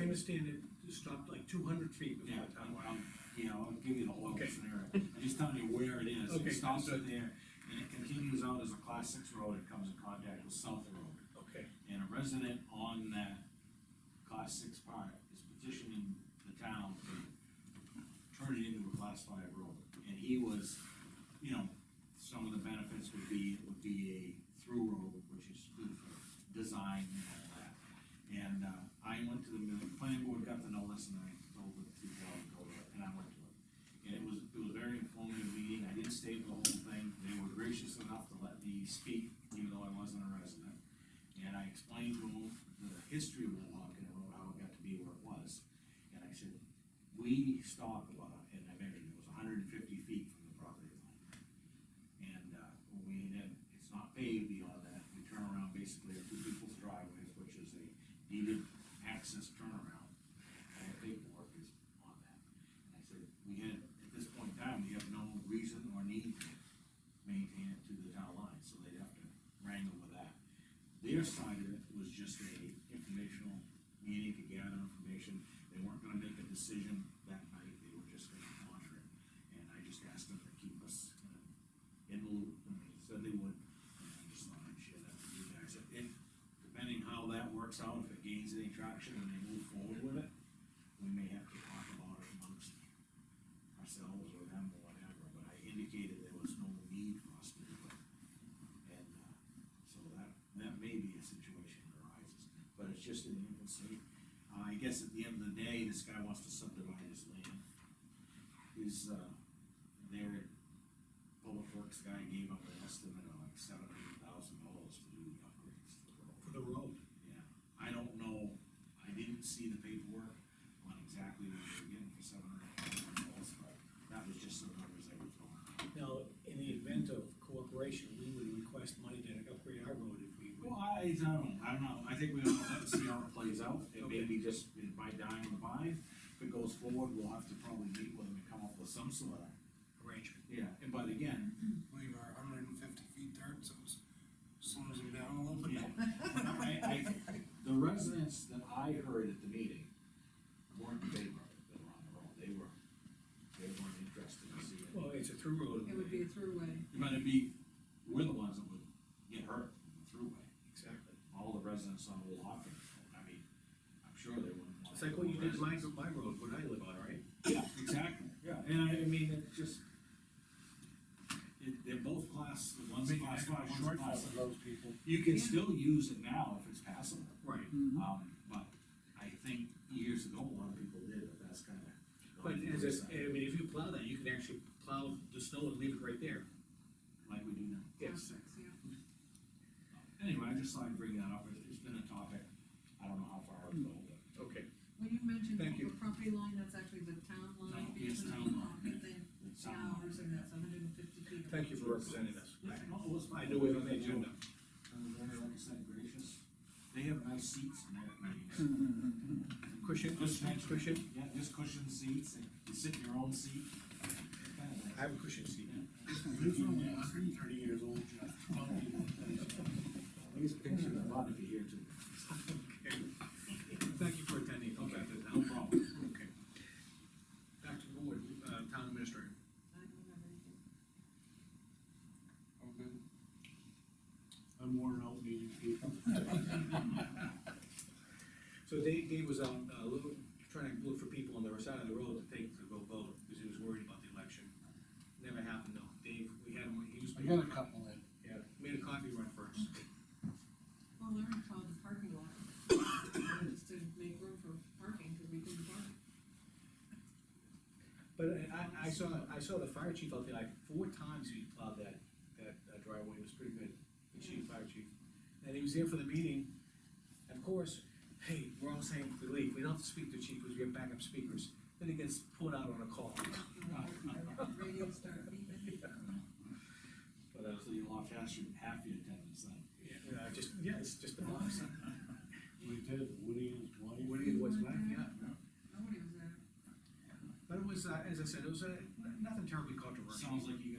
understand it stopped like two hundred feet Yeah, before the town I'm, line. I'm, you know, I'll give you the whole Okay. scenario, I'm just telling you where it is, Okay, it stops right there, and it continues out as a class six road, it comes in contact with South Road. Okay, And a resident on that class six part is petitioning the town to turn it into a class five road. And he was, you know, some of the benefits would be, it would be a through road, which is good for design and all that. And, uh, I went to the, the planning board, got the notice, and I told the two girls, to go to it, and I went to it. And it was, it was a very informative meeting, I didn't stay for the whole thing, they were gracious enough to let me speak, even though I wasn't a resident. And I explained to him the history of Wohonkin Road, how it got to be where it was. And I said, we stopped, uh, and I measured, it was hundred and fifty feet from the property line. And, uh, when we, then, it's not paved beyond that, we turn around basically at two people's driveways, which is a needed access turnaround. And the paperwork is on that. And I said, we had, at this point in time, we have no reason or need to maintain it to the town line, so they'd have to wrangle with that. Their side of it was just a informational meeting to gather information. They weren't gonna make a decision that night, they were just gonna monitor it. And I just asked them to keep us in a- in the loop, and they said they would. And I just thought I'd share that with you guys. And depending how that works out, if it gains any traction and they move forward with it, we may have to talk about it amongst ourselves or them or whatever, but I indicated there was no need for us to do it. And, uh, so that, that may be a situation that arises, but it's just in the infancy. Uh, I guess at the end of the day, this guy wants to subdivide his land. His, uh, their public works guy gave up an estimate of like seven hundred thousand dollars to do the upgrades to the road. for the road. Yeah, I don't know, I didn't see the paperwork on exactly what they were getting for seven hundred dollars, but that was just some numbers they were throwing. Now, in the event of cooperation, we would request money to upgrade our road if we would. Well, I, I don't, I don't know, I think we ought to let it see how it plays out, it may be Okay. just by dying on the vine. If it goes forward, we'll have to probably meet with them and come up with some sort of, Arrangement. yeah, and but again, believe our hundred and fifty feet dirt, so it slows them down a little bit. Yeah, I, I, the residents that I heard at the meeting weren't in favor of it, they were on the road, they were, they weren't interested in seeing it. Well, it's a through road. It would be a throughway. But it'd be, we're the ones that would get hurt through it, Exactly. all the residents on Old Hopkins, I mean, I'm sure they wouldn't. want It's like what you did to my, residents. my road, what I live on, right? Yeah, exactly, yeah, and I, I mean, it's just, it, they're both class, one's a class five, one's a class. six. those people. You can Yeah. still use it now if it's passable. Right. Um, but I think years ago, a lot of people did, but that's kinda. But as I, s- I mean, if you plow that, you can actually plow the snow and leave it right there. Like we do now. Complex, yeah. Anyway, I just thought I'd bring that up, It's- it's been a topic, I don't know how far it'll go, but. Okay. When you mentioned Thank you. the property line, that's actually the town line. No, yes, between town line. Hopkins and it's something. Towers, and that's hundred and fifty feet. Thank you for representing us. Yeah, no, it was fine. I knew it was on the agenda. And they're, like I said, gracious, they have nice seats in their meetings. Cushion, Just nice- cushion? Yeah, just cushion seats, and you sit in your own seat. Kinda nice. I have a cushion seat. There's only hundred and thirty years old, Jeff. These pictures are a lot if you hear too. Okay. Thank you for attending. Okay. No problem. Okay. Back to the board, uh, town administrator. I don't have anything. I'm worn out meeting people. So Dave, Dave was out, uh, look, trying to look for people on the other side of the road to take to go vote, because he was worried about the election. Never happened though, Dave, we had him, he was. I got a couple in. Yeah, made a coffee run first. Well, Larry called the parking lot. Just to make room for parking, cause we couldn't park. But I, I saw, I saw the fire chief out there, like, four times he plowed that, that uh, driveway, it was pretty good, the chief, fire chief. And he was there for the meeting, and of course, hey, we're all saying to leave, we don't have to speak to the chief, because we have backup speakers. Then he gets pulled out on a call, Radio started beeping. but, uh, So you lost half your, half your attendance then. yeah, uh, just, yeah, it's just the boss. We did, Woody and his wife. What do you, what's that, yeah. Nobody was there. But it was, uh, as I said, it was, uh, nothing terribly controversial. Sounds like you